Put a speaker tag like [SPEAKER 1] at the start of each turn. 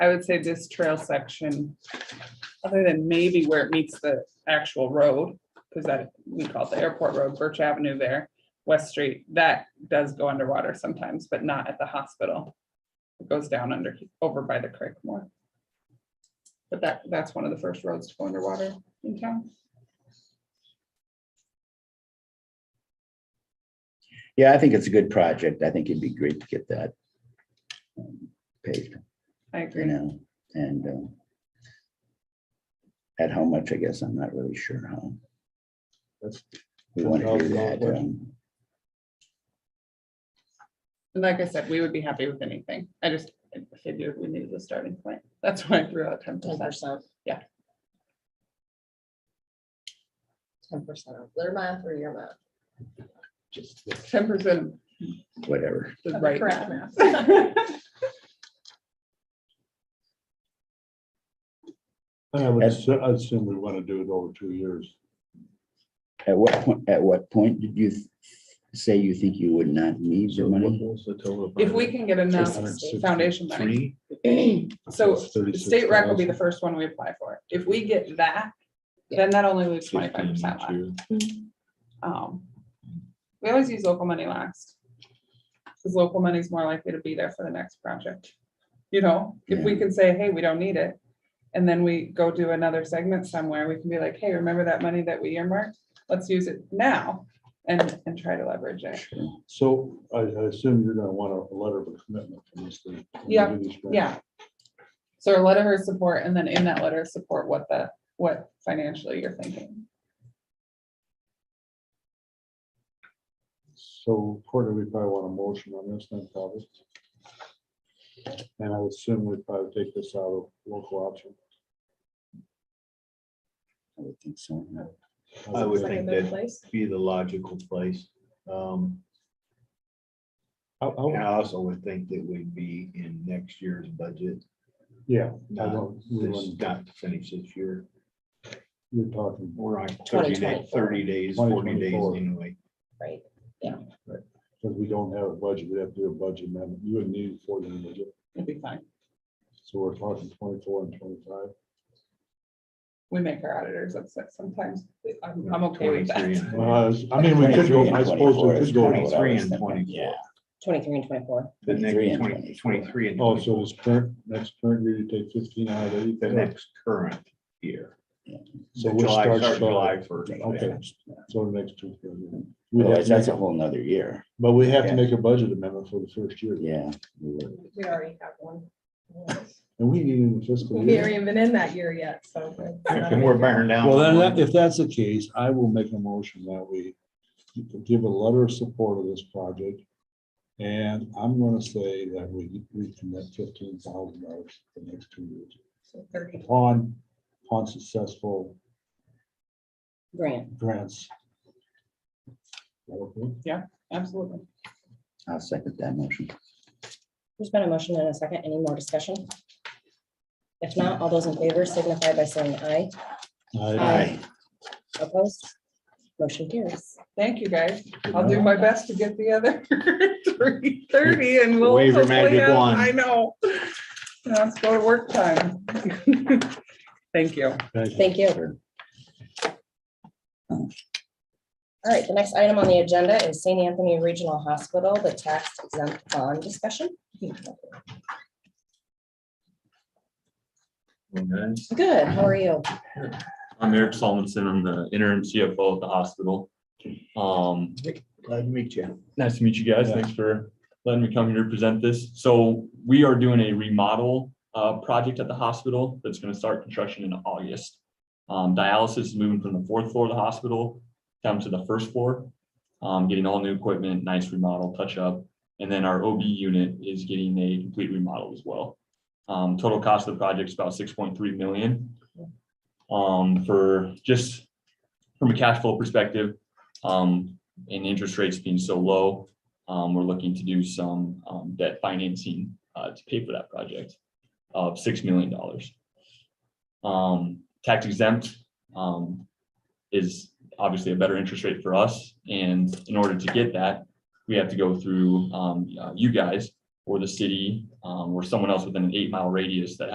[SPEAKER 1] I would say this trail section, other than maybe where it meets the actual road, because that, we call it the airport road, Birch Avenue there, West Street, that does go underwater sometimes, but not at the hospital. It goes down under, over by the creek more. But that, that's one of the first roads to go underwater in town.
[SPEAKER 2] Yeah, I think it's a good project. I think it'd be great to get that um, paved,
[SPEAKER 1] I
[SPEAKER 2] you
[SPEAKER 1] agree.
[SPEAKER 2] know, and um, at how much, I guess, I'm not really sure how.
[SPEAKER 3] That's-
[SPEAKER 2] We want to do
[SPEAKER 3] $10,000
[SPEAKER 2] that.
[SPEAKER 3] question.
[SPEAKER 2] um,
[SPEAKER 1] And like I said, we would be happy with anything. I just figured we needed a starting point. That's why I threw out ten
[SPEAKER 4] ten
[SPEAKER 1] percent.
[SPEAKER 4] percent.
[SPEAKER 1] Yeah.
[SPEAKER 4] Ten percent of their math or your math.
[SPEAKER 3] Just the
[SPEAKER 1] Ten percent
[SPEAKER 2] Whatever.
[SPEAKER 1] is
[SPEAKER 4] Of the
[SPEAKER 1] right.
[SPEAKER 4] Correct math.
[SPEAKER 3] I would,
[SPEAKER 2] And-
[SPEAKER 3] assu- I assume we want to do it over two years.
[SPEAKER 2] At what point, at what point did you th- say you think you would not need the money?
[SPEAKER 1] If we can get enough foundation money, so the state rec will be the first one we apply for. If we get that, then that only leaves twenty-five percent left. Um, We always use local money last. Because local money is more likely to be there for the next project. You know, if we can say, hey, we don't need it. And then we go do another segment somewhere, we can be like, hey, remember that money that we earmarked? Let's use it now and, and try to leverage it.
[SPEAKER 2] Sure.
[SPEAKER 3] So I, I assume you're gonna want a letter of commitment from the state. when we
[SPEAKER 1] Yeah,
[SPEAKER 3] do these grants.
[SPEAKER 1] Yeah. So a letter of support and then in that letter of support, what the, what financially you're thinking.
[SPEAKER 3] So Courtney, we probably want a motion on this then probably. And I would assume we'd probably take this out of local option.
[SPEAKER 2] I would think so.
[SPEAKER 5] I would think that
[SPEAKER 4] place.
[SPEAKER 5] be the logical place. Um,
[SPEAKER 3] I-
[SPEAKER 5] and
[SPEAKER 3] I-
[SPEAKER 5] I also would think that we'd be in next year's budget,
[SPEAKER 3] Yeah, I
[SPEAKER 5] not
[SPEAKER 3] don't, we
[SPEAKER 5] this,
[SPEAKER 3] wouldn't-
[SPEAKER 5] not to finish this year.
[SPEAKER 3] you're talking,
[SPEAKER 5] We're on thirty days,
[SPEAKER 4] 2024.
[SPEAKER 5] thirty days, forty days
[SPEAKER 3] 2024.
[SPEAKER 5] anyway.
[SPEAKER 4] Right,
[SPEAKER 3] because we don't have a budget, we have to do a budget amendment, you would need forty in the budget,
[SPEAKER 1] It'd be fine.
[SPEAKER 3] so we're talking twenty-four and twenty-five.
[SPEAKER 1] We make our auditors upset sometimes. I'm, I'm okay with that.
[SPEAKER 5] 23 and
[SPEAKER 3] Well, Uh, I was- I mean, we could go, I suppose we could go,
[SPEAKER 5] is- 23 and 24.
[SPEAKER 2] Yeah,
[SPEAKER 4] twenty-three and twenty-four.
[SPEAKER 5] The
[SPEAKER 2] 23
[SPEAKER 5] next
[SPEAKER 2] and
[SPEAKER 5] twenty,
[SPEAKER 2] 24.
[SPEAKER 5] twenty-three and
[SPEAKER 3] oh, so
[SPEAKER 5] 24,
[SPEAKER 3] this current, next current year, you take fifteen out of
[SPEAKER 5] the
[SPEAKER 3] eighty.
[SPEAKER 5] next current year.
[SPEAKER 3] So which
[SPEAKER 5] July,
[SPEAKER 3] starts
[SPEAKER 5] start
[SPEAKER 3] July,
[SPEAKER 5] July first.
[SPEAKER 3] okay, so the next two. current year. We'd have
[SPEAKER 2] Otherwise,
[SPEAKER 3] to
[SPEAKER 2] that's
[SPEAKER 3] make-
[SPEAKER 2] a whole nother year.
[SPEAKER 3] But we have
[SPEAKER 2] Yeah.
[SPEAKER 3] to make a budget amendment for the first year,
[SPEAKER 2] Yeah. we would.
[SPEAKER 4] We already have one.
[SPEAKER 3] and we need it in fiscal
[SPEAKER 4] We
[SPEAKER 3] year.
[SPEAKER 4] haven't even in that year yet, so.
[SPEAKER 5] And we're bearing down.
[SPEAKER 3] Well, then,
[SPEAKER 5] on
[SPEAKER 3] that- if that's the case, I will make a motion that we give a letter of support of this project. And I'm gonna say that we recommit fifteen thousand dollars for the next two years.
[SPEAKER 4] So Thirty
[SPEAKER 3] Upon, upon successful
[SPEAKER 4] grand.
[SPEAKER 3] grants. Okay.
[SPEAKER 1] Absolutely.
[SPEAKER 2] I'll second that motion.
[SPEAKER 6] There's been a motion and a second. Any more discussion? If not, all those in favor signify by saying aye.
[SPEAKER 3] I-
[SPEAKER 2] Aye.
[SPEAKER 6] Opposed? Motion carries.
[SPEAKER 1] Thank you, guys. I'll do my best to get the other three thirty and we'll.
[SPEAKER 5] Wave your
[SPEAKER 1] hopefully
[SPEAKER 5] magic
[SPEAKER 1] have-
[SPEAKER 5] wand.
[SPEAKER 1] I know. Now it's go to work time. Thank you.
[SPEAKER 3] Thank you.
[SPEAKER 6] Thank you. All right, the next item on the agenda is St. Anthony Regional Hospital, the tax exempt bond discussion.
[SPEAKER 7] Okay.
[SPEAKER 6] Good, how are you?
[SPEAKER 7] I'm Eric Solomon, I'm the interim CFO of the hospital. Um,
[SPEAKER 5] Glad to meet you.
[SPEAKER 7] nice to meet you guys.
[SPEAKER 3] Yeah.
[SPEAKER 7] Thanks for letting me come here to present this. So we are doing a remodel uh, project at the hospital that's going to start construction in August. Um, dialysis is moving from the fourth floor of the hospital down to the first floor, um, getting all new equipment, nice remodel, touch up. And then our OB unit is getting a complete remodel as well. Um, total cost of the project is about six point three million. Um, for just from a cash flow perspective, um, and interest rates being so low, um, we're looking to do some, um, debt financing, uh, to pay for that project of six million dollars. Um, tax exempt, um, is obviously a better interest rate for us, and in order to get that, we have to go through, um, uh, you guys or the city, um, or someone else within an eight mile radius that